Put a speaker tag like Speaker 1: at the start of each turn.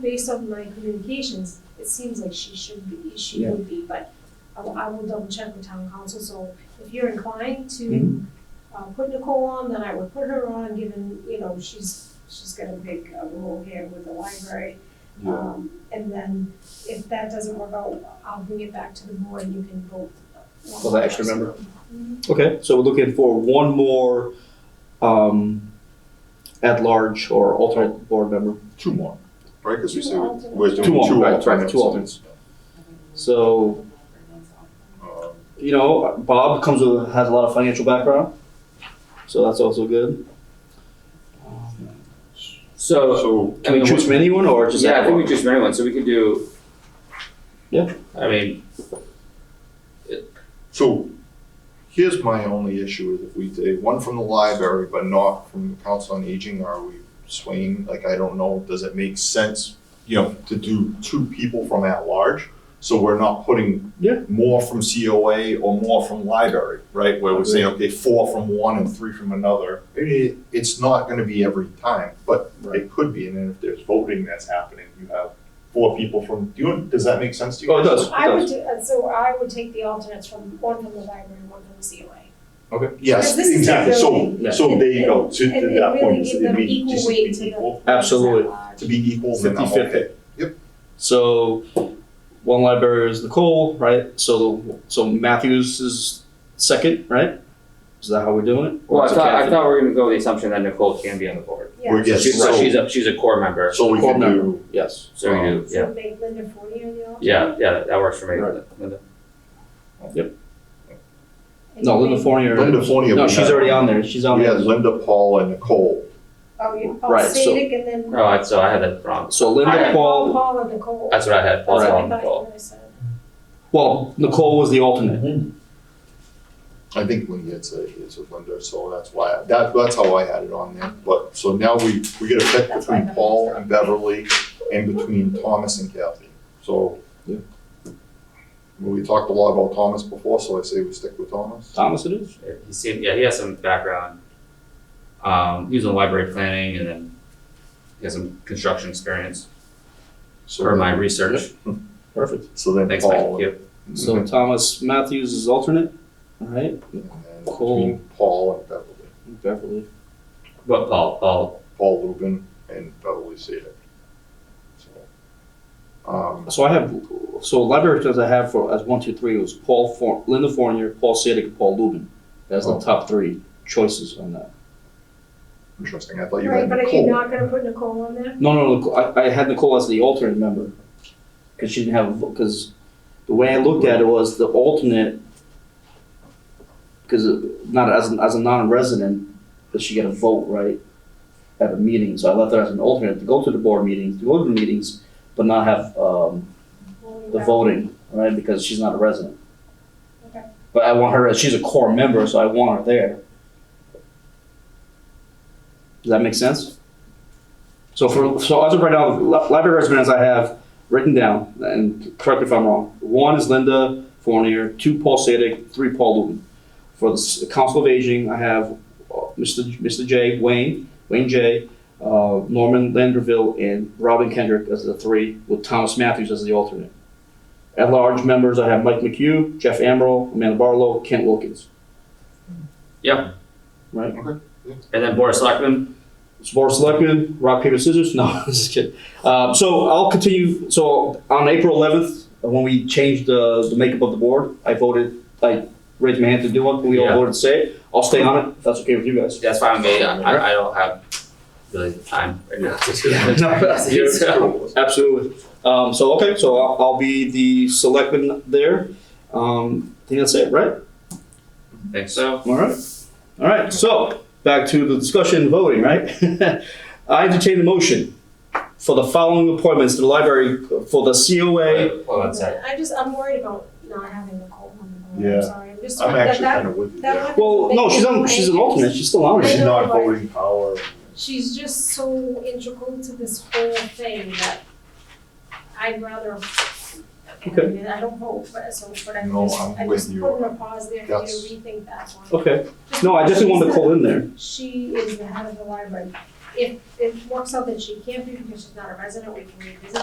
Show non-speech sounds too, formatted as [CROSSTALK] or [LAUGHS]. Speaker 1: based on my communications, it seems like she should be, she
Speaker 2: Yeah.
Speaker 1: would be, but I will, I will double check with town council, so if you're inclined to
Speaker 2: Mhm.
Speaker 1: uh, put Nicole on, then I would put her on, given, you know, she's, she's got a big uh, role here with the library.
Speaker 2: Yeah,
Speaker 1: Um, and then if that doesn't work out, I'll bring it back to the board, and you can vote.
Speaker 2: For the extra member?
Speaker 1: Mhm.
Speaker 2: okay, so we're looking for one more, um, at-large or alternate board member.
Speaker 3: Two more, right? Because we
Speaker 1: Two
Speaker 3: say we-
Speaker 1: alternates.
Speaker 3: we're doing
Speaker 2: Two
Speaker 3: two
Speaker 2: more, right, right,
Speaker 3: alternates.
Speaker 2: two alternates. So,
Speaker 3: Um,
Speaker 2: you know, Bob comes with, has a lot of financial background, so that's also good.
Speaker 4: So,
Speaker 3: So,
Speaker 2: Can we
Speaker 4: And
Speaker 2: choose
Speaker 4: what-
Speaker 2: from anyone or just?
Speaker 4: yeah, I
Speaker 2: that
Speaker 4: think
Speaker 2: one?
Speaker 4: we choose from anyone, so we could do.
Speaker 2: Yeah.
Speaker 4: I mean,
Speaker 3: so here's my only issue is if we take one from the library, but not from the council on aging, are we swaying? Like, I don't know, does it make sense, you know, to do two people from at large? So we're not putting
Speaker 2: Yeah.
Speaker 3: more from COA or more from library, right? Where we're saying, okay, four from one and three from another. It, it's not gonna be every time, but
Speaker 2: Right.
Speaker 3: it could be. And then if there's voting that's happening, you have four people from, do you, does that make sense to you?
Speaker 2: Oh, it
Speaker 3: guys?
Speaker 2: does.
Speaker 1: I would, do- uh, so I would take the alternates from, one from the library, one from the COA.
Speaker 3: Okay. Yes,
Speaker 1: Because this is
Speaker 3: exactly. So,
Speaker 1: building.
Speaker 3: so Oh, there you go. To,
Speaker 1: And- and
Speaker 3: to that
Speaker 1: really
Speaker 3: point,
Speaker 1: give
Speaker 3: it
Speaker 1: them
Speaker 3: may
Speaker 1: equal
Speaker 3: just
Speaker 1: weight
Speaker 3: be
Speaker 1: to the-
Speaker 3: equal.
Speaker 2: Absolutely.
Speaker 3: To be equal, then I'm
Speaker 2: 50-50.
Speaker 3: okay. Yep.
Speaker 2: So one librarian is Nicole, right? So so Matthews is second, right? Is that how we're doing it?
Speaker 4: well, I
Speaker 2: is it
Speaker 4: thought, I
Speaker 2: Catherine?
Speaker 4: thought we were gonna go with the assumption that Nicole can be on the board.
Speaker 1: Yeah,
Speaker 3: Yes,
Speaker 4: She's,
Speaker 3: so-
Speaker 4: she's a, she's a core member,
Speaker 3: So we
Speaker 2: Core
Speaker 3: can
Speaker 2: member.
Speaker 3: do,
Speaker 2: yes.
Speaker 4: so we do, yeah,
Speaker 1: so make Linda Forney on the alternate.
Speaker 4: yeah, yeah, that works for me.
Speaker 2: Right.
Speaker 4: Linda.
Speaker 1: And
Speaker 2: No,
Speaker 1: you
Speaker 2: Linda
Speaker 1: make-
Speaker 2: Fournier.
Speaker 3: Linda Fornia.
Speaker 2: No,
Speaker 3: we
Speaker 2: she's
Speaker 3: had-
Speaker 2: already on there. She's on
Speaker 3: We had
Speaker 2: there.
Speaker 3: Linda, Paul, and Nicole.
Speaker 1: Oh, you, oh,
Speaker 2: Right, so-
Speaker 1: Sadik and then.
Speaker 4: Oh, I- so I had that wrong.
Speaker 2: So
Speaker 1: I
Speaker 2: Linda
Speaker 1: had
Speaker 2: Paul.
Speaker 1: Paul and Nicole.
Speaker 4: That's what I had, Paul,
Speaker 1: That's what
Speaker 4: Paul,
Speaker 1: I
Speaker 4: and
Speaker 1: thought
Speaker 4: Nicole.
Speaker 1: you guys said.
Speaker 2: Well, Nicole was the alternate.
Speaker 3: I think Linda, it's, a- it's with Linda, so that's why, that, that's how I had it on there. But, so now we, we get a pick
Speaker 1: That's why I
Speaker 3: between
Speaker 1: thought it
Speaker 3: Paul
Speaker 1: was
Speaker 3: and Beverly and between Thomas and Kathy. So.
Speaker 2: Yeah.
Speaker 3: We talked a lot about Thomas before, so I say we stick with Thomas.
Speaker 2: Thomas it is.
Speaker 4: He seemed, yeah, he has some background. Um, he was in library planning and then he has some construction experience
Speaker 3: So
Speaker 4: for
Speaker 3: then-
Speaker 4: my research.
Speaker 2: Perfect.
Speaker 3: So then
Speaker 4: Thanks, Mike.
Speaker 3: Paul.
Speaker 4: Yep.
Speaker 3: and-
Speaker 2: So Thomas Matthews is alternate. All right.
Speaker 3: And then
Speaker 2: Cole.
Speaker 3: between Paul and Beverly,
Speaker 2: Beverly.
Speaker 4: But Paul, Paul,
Speaker 3: Paul Lubin and Beverly Sadik. So, Um,
Speaker 2: So I have so library does I have for as one, two, three it was Paul For, Linda Fournier, Paul Sadik, and Paul Lubin. That's
Speaker 3: Oh.
Speaker 2: the top three choices on that.
Speaker 3: interesting, I thought you
Speaker 1: Right,
Speaker 3: had
Speaker 1: but are you
Speaker 3: Nicole.
Speaker 1: not gonna put Nicole on there?
Speaker 2: No, no, Nicole, I, I had Nicole as the alternate member because she didn't have because the way I looked at it was the alternate because not as an, as a non-resident, but she got a vote right at a meeting, so I left her as an alternate to go to the board meetings, to go to the meetings, but not have um, the voting, right? Because she's not a resident.
Speaker 1: Okay.
Speaker 2: But I want her. She's a core member, so I want her there. Does that make sense? So for so as of right now, li- library residents I have written down, and correct me if I'm wrong. One is Linda Fournier, two Paul Sadik, three Paul Lubin. For the s- Council of Aging, I have uh, Mr. J- Mr. J. Wayne Wayne J. Uh, Norman Landerville and Robin Kendrick as the three, with Thomas Matthews as the alternate. At large members, I have Mike McHugh, Jeff Amaral, Amanda Barlow, Kent Wilkins.
Speaker 4: yeah.
Speaker 2: Right.
Speaker 3: Okay, yeah.
Speaker 4: And then Boris Selectman,
Speaker 2: It's Board of Selectmen, rock, paper, scissors? [LAUGHS] No, I'm just kidding. Um, so I'll continue. So on April 11th, when we changed the, the makeup of the board, I voted, I raised my hand to do it. We all
Speaker 4: Yeah.
Speaker 2: voted to say it. I'll stay on it if that's okay with you guys.
Speaker 4: that's fine with me, I, I don't have really the time right now to do
Speaker 2: Yeah, no,
Speaker 4: [LAUGHS]
Speaker 2: that's-
Speaker 4: that. So-
Speaker 2: Absolutely. Um, so, okay, so I'll, I'll be the selectman there. Um, I think that's it, right?
Speaker 4: Think so?
Speaker 2: All right. All right. So back to the discussion and voting, right? [LAUGHS] I entertain the motion for the following appointments to the library for the COA.
Speaker 4: Wait, Hold on a second.
Speaker 1: I just, I'm worried about not having Nicole on the board,
Speaker 3: Yeah.
Speaker 1: I'm sorry, I'm just.
Speaker 3: I'm
Speaker 1: that-
Speaker 3: actually
Speaker 1: that-
Speaker 3: kind of with you
Speaker 1: that
Speaker 3: there. Oh,
Speaker 1: one-
Speaker 2: Well, no, she's on. She's an alternate. She's still on.
Speaker 3: She's
Speaker 2: it.
Speaker 3: not voting power.
Speaker 1: She's just so integral to this whole thing that I'd rather, I
Speaker 2: Okay.
Speaker 1: mean, I don't vote, but so, but I'm
Speaker 3: No,
Speaker 1: just,
Speaker 3: I'm
Speaker 1: I
Speaker 3: with
Speaker 1: just
Speaker 3: you.
Speaker 1: put in a pause there for you
Speaker 3: That's-
Speaker 1: to rethink that one.
Speaker 2: Okay. No, I definitely want to call in there.
Speaker 1: She is the head of the library. if it works out that she can't be because she's not a resident, we can revisit